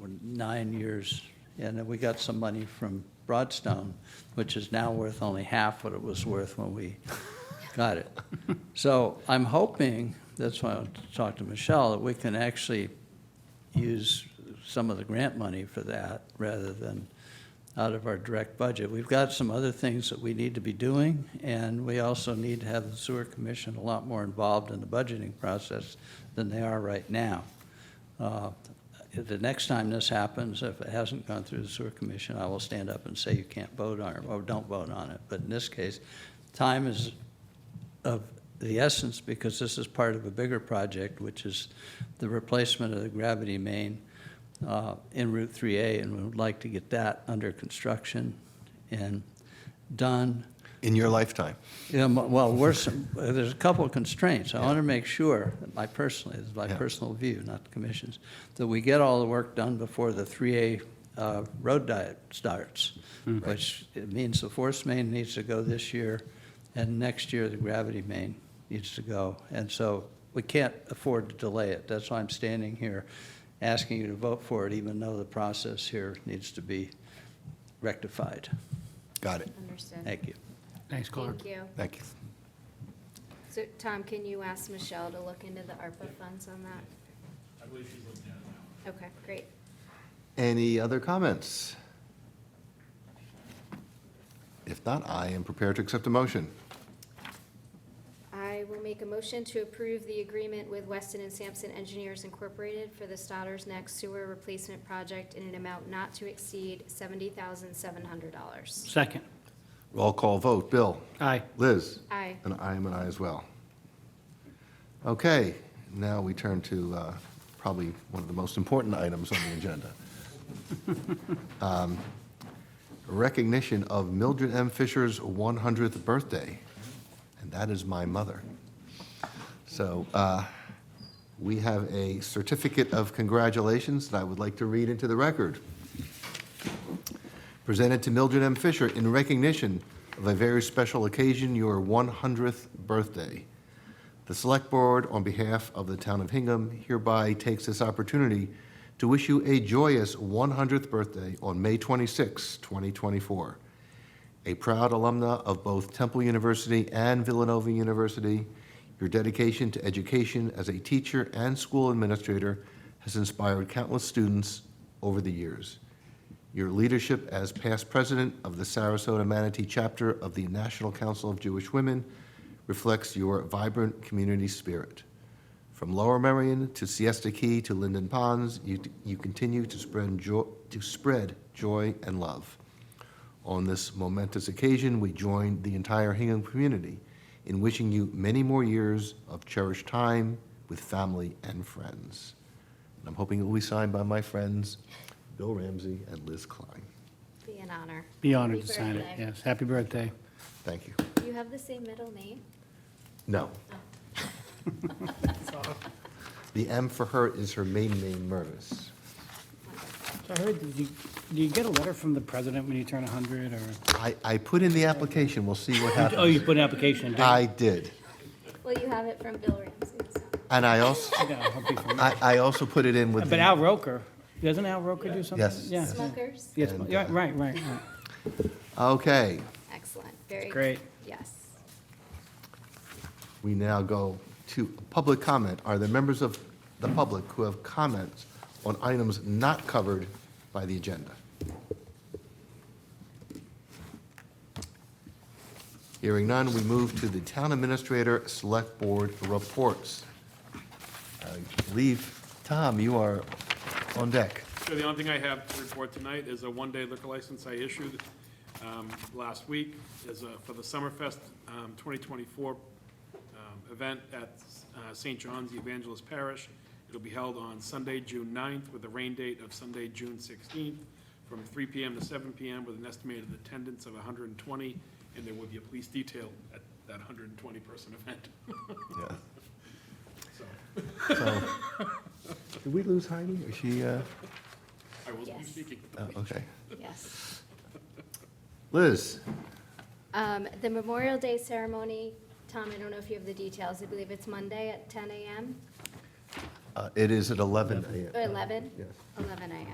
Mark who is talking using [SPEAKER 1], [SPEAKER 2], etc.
[SPEAKER 1] were nine years, and then we got some money from Broadstone, which is now worth only half what it was worth when we got it. So I'm hoping, that's why I talked to Michelle, that we can actually use some of the grant money for that rather than out of our direct budget. We've got some other things that we need to be doing, and we also need to have the sewer commission a lot more involved in the budgeting process than they are right now. Uh, The next time this happens, if it hasn't gone through the sewer commission, I will stand up and say you can't vote on it, or don't vote on it. But in this case, time is of the essence because this is part of a bigger project, which is the replacement of the gravity main uh, in Route 3A, and we would like to get that under construction and done.
[SPEAKER 2] in your lifetime.
[SPEAKER 1] Yeah, m- well, worse, there's a couple of constraints. I want to make sure, that my personally, this is my
[SPEAKER 2] Yeah.
[SPEAKER 1] personal view, not the commission's, that we get all the work done before the 3A uh, road diet starts, which it means the force main needs to go this year, and next year the gravity main needs to go. And so we can't afford to delay it. That's why I'm standing here asking you to vote for it, even though the process here needs to be rectified.
[SPEAKER 2] Got it.
[SPEAKER 3] Understood.
[SPEAKER 1] Thank you.
[SPEAKER 4] Thanks, Clark.
[SPEAKER 3] Thank you.
[SPEAKER 2] Thank you.
[SPEAKER 3] So, Tom, can you ask Michelle to look into the ARPA funds on that? I believe she's looking at it now. Okay, great.
[SPEAKER 2] Any other comments? If not, I am prepared to accept a motion.
[SPEAKER 3] I will make a motion to approve the agreement with Weston and Sampson Engineers Incorporated for the Stoddard's Neck Sewer Replacement Project in an amount not to exceed seventy thousand seven hundred dollars.
[SPEAKER 4] Second.
[SPEAKER 2] Roll call vote. Bill?
[SPEAKER 4] Aye.
[SPEAKER 2] Liz?
[SPEAKER 3] Aye.
[SPEAKER 2] And I am an aye as well. Okay, now we turn to uh, probably one of the most important items on the agenda. Um, Recognition of Mildred M. Fisher's 100th birthday, and that is my mother. So uh, we have a certificate of congratulations that I would like to read into the record presented to Mildred M. Fisher in recognition of a very special occasion, your 100th birthday. The Select Board, on behalf of the Town of Hingham, hereby takes this opportunity to wish you a joyous 100th birthday on May 26, 2024. A proud alumna of both Temple University and Villanova University, your dedication to education as a teacher and school administrator has inspired countless students over the years. Your leadership as past president of the Sarasota Manatee Chapter of the National Council of Jewish Women reflects your vibrant community spirit. From Lower Merion to Siesta Key to Linden Ponds, you, you continue to spread, joy, to spread joy and love. On this momentous occasion, we join the entire Hingham community in wishing you many more years of cherished time with family and friends. And I'm hoping it will be signed by my friends, Bill Ramsey and Liz Klein.
[SPEAKER 3] Be an honor.
[SPEAKER 4] Be honored to
[SPEAKER 3] Happy
[SPEAKER 4] sign it,
[SPEAKER 3] birthday.
[SPEAKER 4] yes. Happy birthday.
[SPEAKER 2] Thank you.
[SPEAKER 3] You have the same middle name?
[SPEAKER 2] No. The M for her is her main name, Mervis.
[SPEAKER 4] So I heard, did you, do you get a letter from the president when you turn 100, or?
[SPEAKER 2] I, I put in the application, we'll see what
[SPEAKER 4] Oh, you
[SPEAKER 2] happens.
[SPEAKER 4] put an application, did
[SPEAKER 2] I did.
[SPEAKER 3] Well, you have it from Bill Ramsey, so.
[SPEAKER 2] And I also, I, I also put it in with.
[SPEAKER 4] But
[SPEAKER 2] the-
[SPEAKER 4] Al Roker, doesn't Al Roker do something?
[SPEAKER 2] Yes.
[SPEAKER 4] Yeah.
[SPEAKER 3] Smuckers?
[SPEAKER 4] Yes,
[SPEAKER 2] And,
[SPEAKER 4] yeah,
[SPEAKER 2] uh,
[SPEAKER 4] right, right, right.
[SPEAKER 2] Okay,
[SPEAKER 3] Excellent, very.
[SPEAKER 4] Great.
[SPEAKER 3] Yes.
[SPEAKER 2] we now go to public comment. Are there members of the public who have comments on items not covered by the agenda? Hearing none, we move to the Town Administrator Select Board Reports. I believe, Tom, you are on deck.
[SPEAKER 5] So the only thing I have to report tonight is a one-day liquor license I issued um, last week is uh, for the Summerfest um, 2024 um, event at uh, St. John's Evangelist Parish. It'll be held on Sunday, June 9th, with a rain date of Sunday, June 16th, from 3 PM to 7 PM, with an estimated attendance of 120, and there will be a police detail at that 120-person event. So
[SPEAKER 2] So, Did we lose Heidi? Is she, uh,
[SPEAKER 5] I will be
[SPEAKER 3] Yes.
[SPEAKER 5] speaking.
[SPEAKER 2] oh, okay.
[SPEAKER 3] Yes.
[SPEAKER 2] Liz?
[SPEAKER 3] Um, The Memorial Day ceremony, Tom, I don't know if you have the details, I believe it's Monday at 10 AM,
[SPEAKER 2] Uh, It is at 11 a.m.
[SPEAKER 3] or 11?
[SPEAKER 2] Yes.
[SPEAKER 3] 11 AM.